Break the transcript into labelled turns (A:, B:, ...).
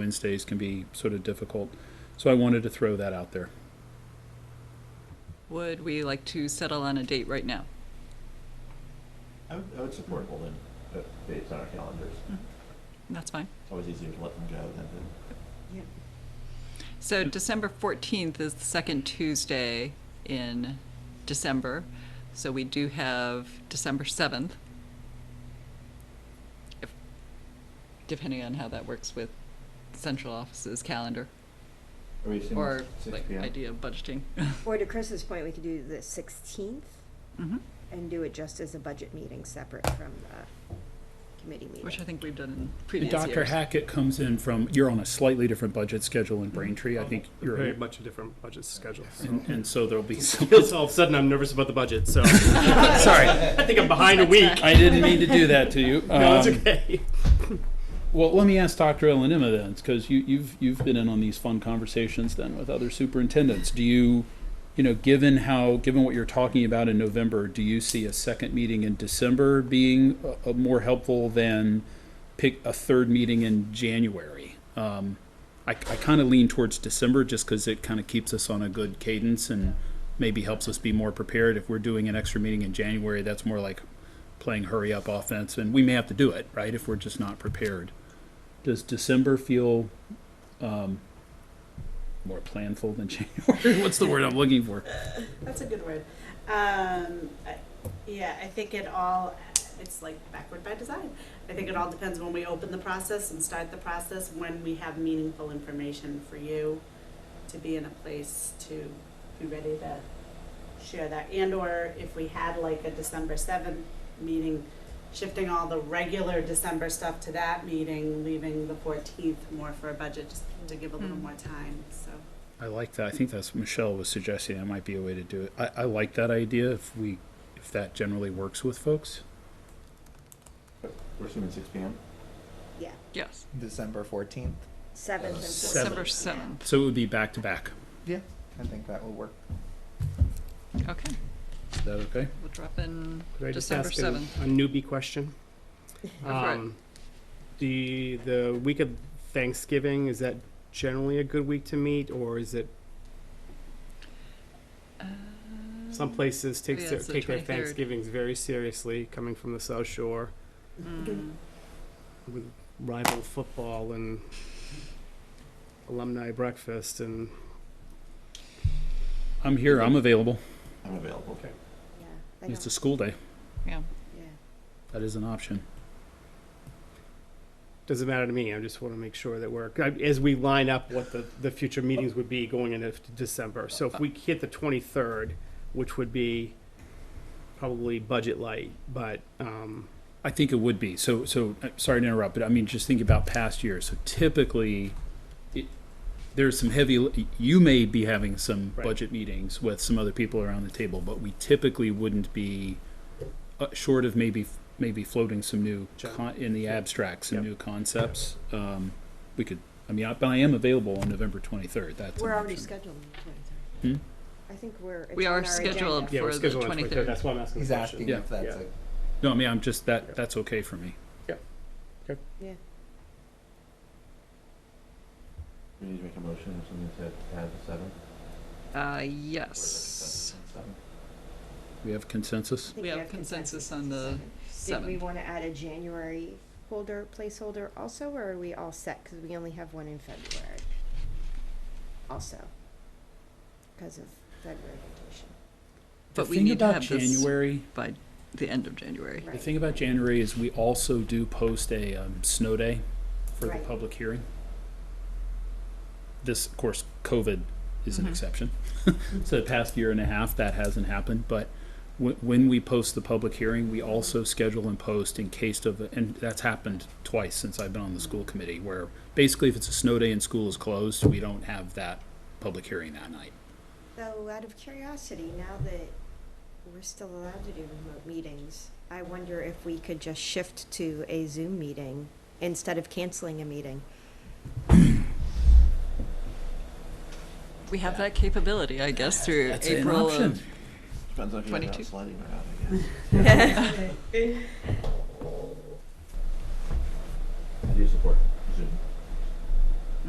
A: Wednesdays can be sort of difficult. So I wanted to throw that out there.
B: Would we like to settle on a date right now?
C: I would, I would support holding, uh, based on our calendars.
D: Hmm.
B: That's fine.
C: It's always easier to let them go than to.
B: So December 14th is the second Tuesday in December, so we do have December 7th. If- Depending on how that works with central office's calendar
C: Are we assuming
B: or
C: six
B: like
C: PM?
B: idea of budgeting.
E: Or to Chris's point, we could do the sixteenth Mm-hmm.
B: Mhm.
E: and do it just as a budget meeting separate from the committee meeting.
B: Which I think we've done in
A: And
B: previous years.
A: Dr. Hackett comes in from, you're on a slightly different budget schedule in Braintree. I think you're,
D: very much a different budget schedule. So.
A: and, and so there'll be some.
D: all of a sudden, I'm nervous about the budget, so
A: Sorry,
D: I think I'm behind a week.
A: I didn't mean to do that to you.
D: No, it's
A: Um,
D: okay.
A: Well, let me ask Dr. Elanima then, because you, you've you've been in on these fun conversations then with other superintendents. Do you, you know, given how given what you're talking about in November, do you see a second meeting in December being a, a more helpful than pick a third meeting in January? Um, I, I kind of lean towards December just because it kind of keeps us on a good cadence and maybe helps us be more prepared. If we're doing an extra meeting in January, that's more like playing hurry up offense, and we may have to do it, right? If we're just not prepared. Does December feel um, more planful than January? What's the word I'm looking for?
F: That's a good word. Um, I, yeah, I think it all, it's like backward by design. I think it all depends when we open the process and start the process, when we have meaningful information for you to be in a place to be ready to share that. And or if we had like a December seventh meeting, shifting all the regular December stuff to that meeting, leaving the fourteenth more for a budget, just to give a little
B: Mm.
F: more time, so.
A: I like that. I think that's Michelle was suggesting that might be a way to do it. I, I like that idea if we if that generally works with folks.
C: We're assuming six PM?
E: Yeah,
B: Yes,
G: December 14th.
E: seventh and fourteenth.
B: December 7th.
A: So it would be back to back.
G: Yeah. I think that will work.
B: Okay,
A: Is that okay?
B: we'll drop in
D: Could I just
B: December
D: ask a-
B: 7th.
D: A newbie question.
B: for it.
D: Um, the the week of Thanksgiving is that generally a good week to meet, or is it
B: uh,
D: some places take
B: Mm. yeah,
D: their,
B: it's the
D: take their
B: 23rd.
D: Thanksgivings very seriously, coming from the South Shore
B: Mm,
D: with rival football and alumni breakfast and
A: I'm here. I'm available.
C: I'm available.
D: Okay.
E: Yeah, I
A: It's
E: don't,
A: a school day.
B: Yeah.
E: yeah.
A: That is an option.
D: Doesn't matter to me. I just want to make sure that we're as we line up what the, the future meetings would be going into December. So if we hit the twenty third, which would be probably budget light, but um,
A: I think it would be. So, so uh, sorry to interrupt, but I mean, just think about past years. So typically, it, there's some heavy. li- You may be having some
D: Right.
A: budget meetings with some other people around the table, but we typically wouldn't be uh, short of maybe maybe floating some new
D: Sure.
A: con- in the abstract, some
D: Yep.
A: new concepts. Um, we could. I mean, I, but I am available on November 23rd. That's an
E: We're already
A: option.
E: scheduled on the
A: Hmm?
E: twenty-third. I think we're, it's
B: Hmm? We
E: on
B: are
E: our
B: scheduled
E: agenda.
D: yeah,
B: For
D: we're
B: the
D: scheduled on
B: 23rd.
D: twenty third. That's why I'm asking.
G: He's
D: the question.
G: asking
A: Yeah.
G: if that's
D: Yeah.
G: a
A: No, I mean, I'm just that.
D: Yeah.
A: That's okay for me.
C: We need to make a motion or something to add the seventh.
B: Uh,
C: or is it
B: yes.
C: consensus on seventh?
A: We have consensus.
E: I think
B: We have consensus on the
E: seventh. Did we
B: 7th.
E: want to add a January holder, placeholder also, or are we all set? Because we only have one in February also, because of February vacation.
B: But
A: the
B: we
A: thing
B: need to
A: about
B: have this
A: January.
B: by the end of January.
E: Right.
A: The thing about January is we also do post a um, snow day for the
E: Right.
A: public hearing. This, of course, COVID is an
E: Mm-hmm.
B: Mhm.
A: exception. so the past year and a half, that hasn't happened. But w- when we post the public hearing, we also schedule and post in case of, and that's happened twice since I've been on the school committee, where basically if it's a snow day and school is closed, we don't have that public hearing that night.
E: So out of curiosity, now that we're still allowed to do remote meetings, I wonder if we could just shift to a Zoom meeting instead of canceling a meeting.
B: We have that capability, I guess, through
A: That's an
B: April uh,
A: option.
B: of
C: Depends on if you're
B: 22.
C: not sliding or not, I guess. I do support Zoom.